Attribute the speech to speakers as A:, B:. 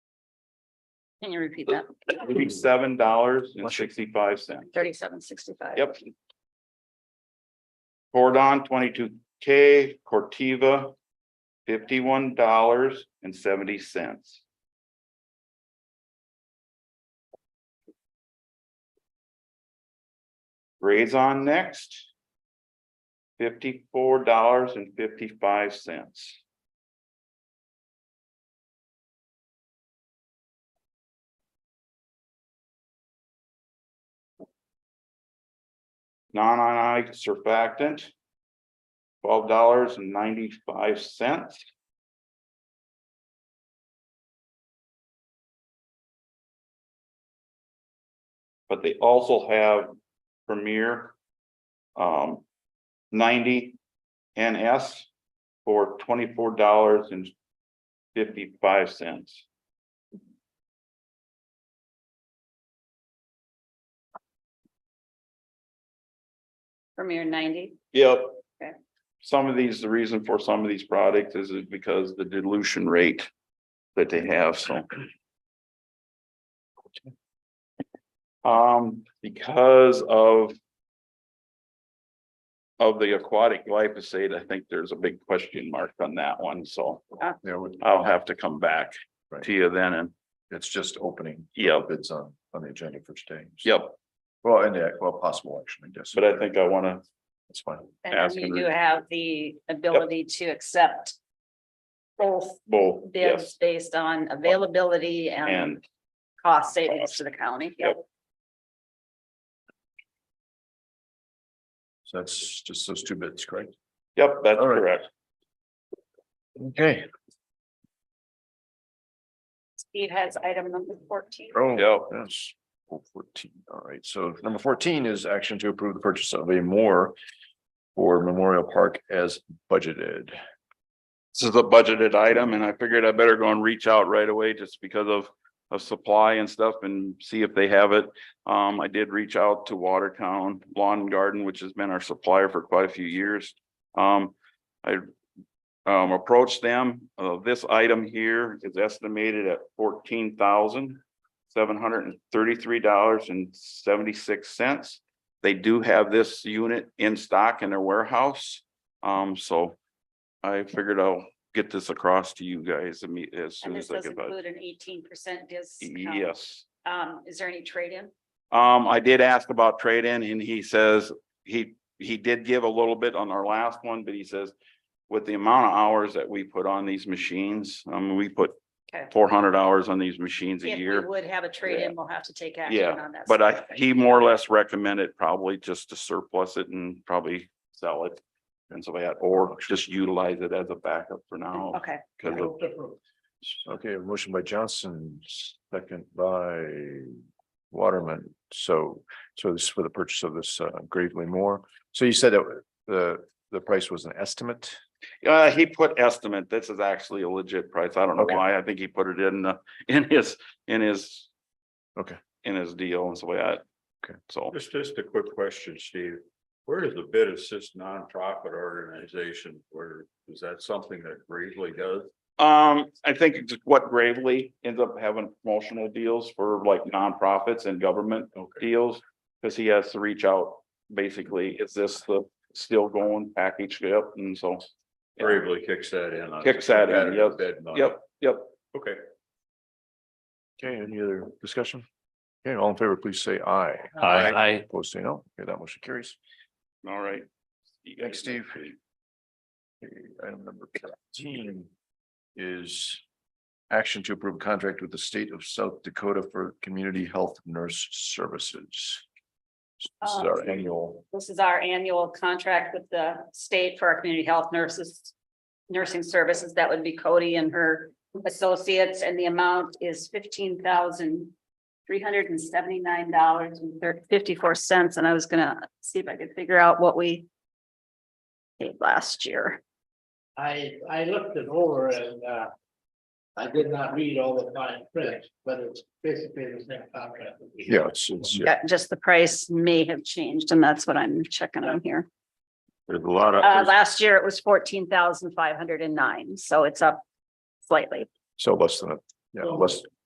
A: Can you repeat that?
B: It'd be seven dollars and sixty-five cents.
A: Thirty-seven sixty-five.
B: Yep. Cordon twenty-two K, Cortiva, fifty-one dollars and seventy cents. Raison next. Fifty-four dollars and fifty-five cents. non-ionic surfactant. Twelve dollars and ninety-five cents. But they also have Premier. Um. Ninety NS for twenty-four dollars and fifty-five cents.
A: Premier ninety,
B: Yep.
A: Okay.
B: Some of these, the reason for some of these products is is because the dilution rate that they have, so. Um, because of. Of the aquatic glyphosate, I think there's a big question mark on that one, so
C: Yeah, we-
B: I'll have to come back
C: Right.
B: to you then and,
C: it's just opening.
B: yep,
C: It's on, on the agenda for today.
B: yep,
C: Well, and yeah, well, possible action, I guess.
B: but I think I wanna,
C: That's fine.
A: and then
B: Asking
A: you do
B: re-
A: have the ability to accept both
B: both, yes,
A: bids based on availability and
B: and
A: cost savings to the county.
B: Yep.
C: So that's just those two bits, correct?
B: yep, that's
C: All right.
B: correct.
C: Okay.
A: Steve has item number fourteen.
C: Oh,
B: Yep.
C: yes. Oh, Fourteen, all right. So number fourteen is action to approve the purchase of a more for Memorial Park as budgeted.
B: This is a budgeted item and I figured I better go and reach out right away just because of of supply and stuff and see if they have it. Um, I did reach out to Watertown Lawn and Garden, which has been our supplier for quite a few years. Um, I um, approached them. Uh, this item here is estimated at fourteen thousand seven hundred and thirty-three dollars and seventy-six cents. They do have this unit in stock in their warehouse. Um, so I figured I'll get this across to you guys imme- as
A: And
B: soon
A: this
B: as I
A: does
B: can. but-
A: include an eighteen percent discount.
B: Yes,
A: Um, is there any trade-in?
B: um, I did ask about trade-in and he says, he, he did give a little bit on our last one, but he says. With the amount of hours that we put on these machines, um, we put
A: Okay.
B: four hundred hours on these machines a
A: If we
B: year.
A: Would have a trade-in, we'll have to take action
B: Yeah,
A: on that.
B: But I, he more or less recommended probably just to surplus it and probably sell it. And so that, or just utilize it as a backup for now.
A: Okay,
B: 'cause of-
C: Okay, a motion by Johnson, second by Waterman. So, so this is for the purchase of this uh, gravely more. So you said that the, the price was an estimate?
B: Uh, he put estimate. This is actually a legit price. I don't know
C: Okay.
B: why. I think he put it in the, in his, in his.
C: Okay.
B: In his deal and so we had.
C: Okay.
B: So
D: Just, just a quick question, Steve. Where does the bid assist nonprofit organization, where, is that something that Gravely does?
B: um, I think it's what Gravely ends up having promotional deals for like nonprofits and government
D: Okay,
B: deals. Cause he has to reach out, basically, is this the still going package? Yep, and so.
D: Gravely kicks that in. on
B: Kicks that in,
D: competitive
B: yep,
D: bid money.
B: Yep, yep.
D: Okay.
C: Okay, any other discussion? Okay, all in favor, please say aye.
D: Aye.
C: Opposed, say no. Okay, that motion carries.
B: All right.
C: Thanks, Steve. Okay, Item number fifteen is action to approve contract with the state of South Dakota for community health nurse services. This is our
A: Um,
C: annual,
A: this is our annual contract with the state for our community health nurses. Nursing services, that would be Cody and her associates, and the amount is fifteen thousand three hundred and seventy-nine dollars and fifty-four cents, and I was gonna see if I could figure out what we. Paid last year.
E: I, I looked it over and, uh. I did not read all the fine print, but it's basically the same contract. that we
C: yeah, it's, it's, yeah,
A: Yeah, just the price may have changed, and that's what I'm checking on here.
D: There's a lot of.
A: Uh, last year it was fourteen thousand five hundred and nine, so it's up slightly.
C: so less than, a yeah, less,